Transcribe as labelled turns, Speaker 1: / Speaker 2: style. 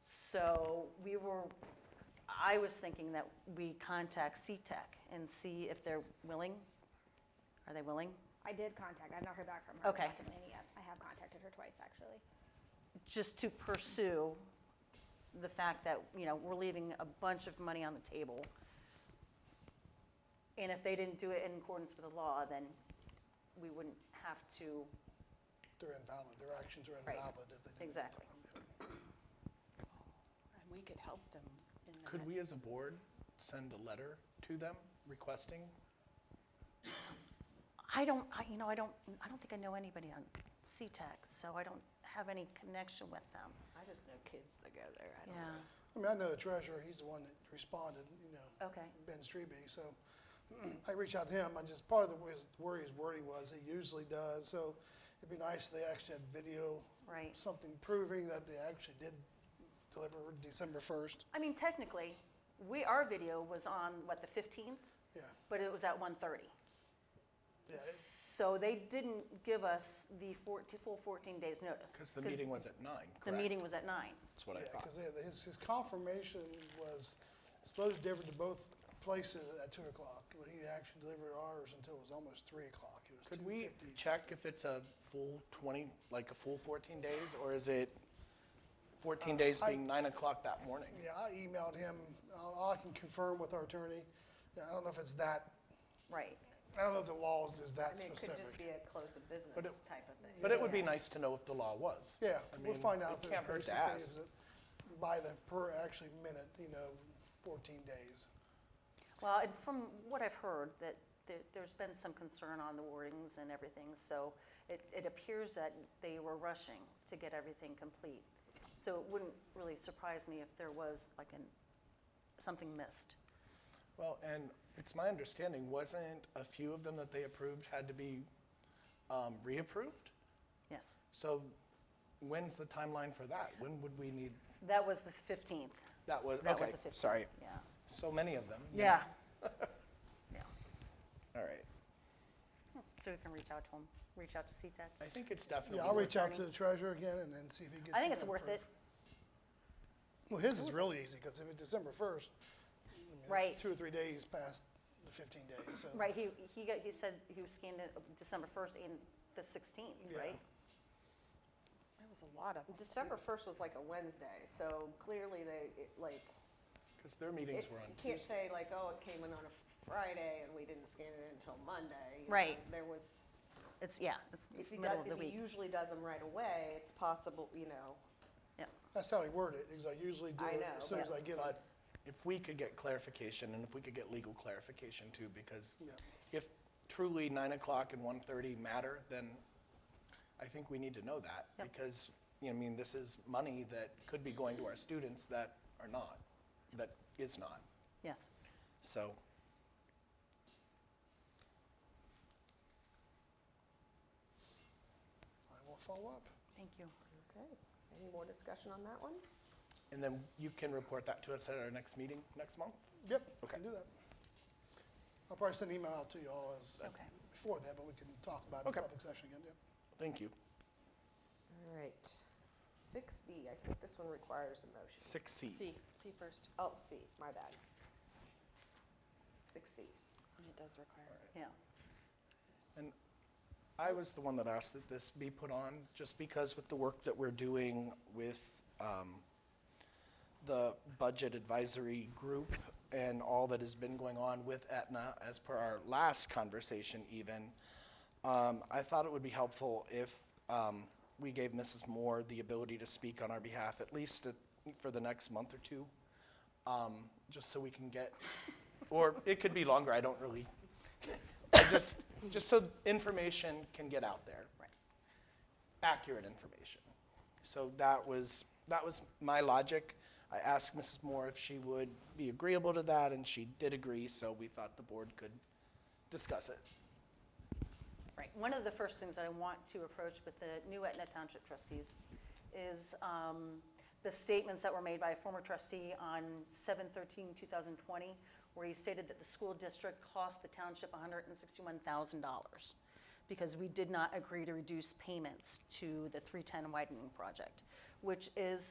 Speaker 1: So we were, I was thinking that we contact CTEC and see if they're willing. Are they willing?
Speaker 2: I did contact, I've not heard back from her.
Speaker 1: Okay.
Speaker 2: Dr. Mulaney yet. I have contacted her twice, actually.
Speaker 1: Just to pursue the fact that, you know, we're leaving a bunch of money on the table. And if they didn't do it in accordance with the law, then we wouldn't have to,
Speaker 3: They're invalid, their actions are
Speaker 1: Right.
Speaker 3: invalid if they didn't.
Speaker 1: exactly.
Speaker 4: And we could help them in that.
Speaker 5: Could we, as a board, send a letter to them requesting?
Speaker 1: I don't, I, you know, I don't, I don't think I know anybody on CTEC, so I don't have any connection with them.
Speaker 4: I just know kids that go there. I don't know.
Speaker 1: Yeah,
Speaker 3: I mean, I know the treasurer, he's the one that responded, you know,
Speaker 1: okay,
Speaker 3: Ben Strebe, so I reached out to him, I just, part of the his worry, his wording was, he usually does, so it'd be nice if they actually had video,
Speaker 1: right.
Speaker 3: something proving that they actually did deliver December first,
Speaker 1: I mean, technically, we, our video was on, what, the 15th?
Speaker 3: yeah.
Speaker 1: But it was at 1:30.
Speaker 3: yeah, it-
Speaker 1: So they didn't give us the 14, full 14 days' notice.
Speaker 5: Because the meeting was at nine,
Speaker 1: The
Speaker 5: correct?
Speaker 1: meeting was at 9.
Speaker 5: That's what I
Speaker 3: Yeah,
Speaker 5: thought.
Speaker 3: because his, his confirmation was supposed to deliver to both places at two o'clock, but he actually delivered ours until it was almost three o'clock, it was two
Speaker 5: Could
Speaker 3: fifty.
Speaker 5: we check if it's a full 20, like a full 14 days, or is it 14 days
Speaker 3: Uh, I-
Speaker 5: being nine o'clock that morning?
Speaker 3: Yeah, I emailed him. I'll- I can confirm with our attorney. Yeah, I don't know if it's that,
Speaker 1: Right.
Speaker 3: I don't know if the laws is
Speaker 6: I
Speaker 3: that
Speaker 6: mean, it could just
Speaker 3: specific.
Speaker 6: be a close of business
Speaker 5: But it-
Speaker 6: type of thing.
Speaker 5: But it would be nice to know if the law was.
Speaker 3: Yeah,
Speaker 5: I
Speaker 3: we'll
Speaker 5: mean,
Speaker 3: find
Speaker 5: it
Speaker 3: out. if
Speaker 5: can't hurt
Speaker 3: there's
Speaker 5: to
Speaker 3: basic things
Speaker 5: ask.
Speaker 3: that By the per actually minute, you know, fourteen days.
Speaker 1: Well, and from what I've heard, that there- there's been some concern on the wordings and everything, so it it appears that they were rushing to get everything complete. So it wouldn't really surprise me if there was like an, something missed.
Speaker 5: Well, and it's my understanding, wasn't a few of them that they approved had to be um, reapproved?
Speaker 1: Yes.
Speaker 5: So when's the timeline for that? When would we need,
Speaker 1: That was the 15th.
Speaker 5: that was,
Speaker 1: That was
Speaker 5: okay,
Speaker 1: the 15th.
Speaker 5: sorry.
Speaker 1: Yeah.
Speaker 5: So many of them. you know.
Speaker 1: Yeah. Yeah.
Speaker 5: All right.
Speaker 1: So we can reach out to them, reach out to E CTEC.
Speaker 5: I think it's definitely.
Speaker 3: Yeah, I'll
Speaker 5: worth-
Speaker 3: reach out to the treasurer again and then see if he gets.
Speaker 1: I think it's
Speaker 3: some
Speaker 1: worth it.
Speaker 3: proof. Well, his is really easy because if it's December first,
Speaker 1: Right.
Speaker 3: it's two or three days past the fifteen days, so.
Speaker 1: Right, he, he got, he said he was scanned it December 1st and the 16th,
Speaker 3: Yeah.
Speaker 1: right?
Speaker 4: There was a lot of. 'em, too.
Speaker 6: December first was like a Wednesday, so clearly they, it, like,
Speaker 5: Because their
Speaker 6: it-
Speaker 5: meetings were on
Speaker 6: you can't
Speaker 5: Tuesday.
Speaker 6: say like, oh, it came in on a Friday and we didn't scan it until Monday. you know,
Speaker 1: Right.
Speaker 6: There was,
Speaker 1: It's, yeah, it's
Speaker 6: if he
Speaker 1: middle
Speaker 6: does,
Speaker 1: of the
Speaker 6: if he
Speaker 1: week.
Speaker 6: usually does them right away, it's possible, you know,
Speaker 3: That's how he worded it, because I usually do
Speaker 6: I
Speaker 3: it
Speaker 6: know,
Speaker 3: as soon
Speaker 6: but-
Speaker 3: as I get it.
Speaker 5: But if we could get clarification and if we could get legal clarification too, because
Speaker 3: Yeah.
Speaker 5: if truly nine o'clock and 1:30 matter, then I think we need to know that.
Speaker 1: Yep.
Speaker 5: Because, you know, I mean, this is money that could be going to our students that are not, that is not.
Speaker 1: Yes.
Speaker 5: So
Speaker 3: I will follow up.
Speaker 1: Thank you.
Speaker 6: okay. Any more discussion on that one?
Speaker 5: And then you can report that to us at our next meeting next month?
Speaker 3: Yep, we
Speaker 5: Okay.
Speaker 3: can do that. I'll probably send an email out to you all as,
Speaker 1: Okay.
Speaker 3: before that, but we can talk about it in
Speaker 5: Okay.
Speaker 3: public session again, yep.
Speaker 5: Thank you.
Speaker 6: All right. Six D, I think this one requires a motion.
Speaker 5: Six C.
Speaker 4: C, C first,
Speaker 6: Oh, C, my bad. Six C.
Speaker 4: and it does require.
Speaker 1: Yeah.
Speaker 5: And I was the one that asked that this be put on, just because with the work that we're doing with um, the Budget Advisory Group and all that has been going on with Aetna, as per our last conversation even, um, I thought it would be helpful if um, we gave Mrs. Moore the ability to speak on our behalf, at least at- for the next month or two, um, just so we can get, or it could be longer, I don't really I just, just so information can get out there. Right. Accurate information. So that was, that was my logic. I asked Mrs. Moore if she would be agreeable to that, and she did agree, so we thought the board could discuss it.
Speaker 1: Right. One of the first things that I want to approach with the new Etna Township trustees is um, the statements that were made by a former trustee on 7/13/2020, where he stated that the school district cost the township $161,000 because we did not agree to reduce payments to the 310 widening project, which is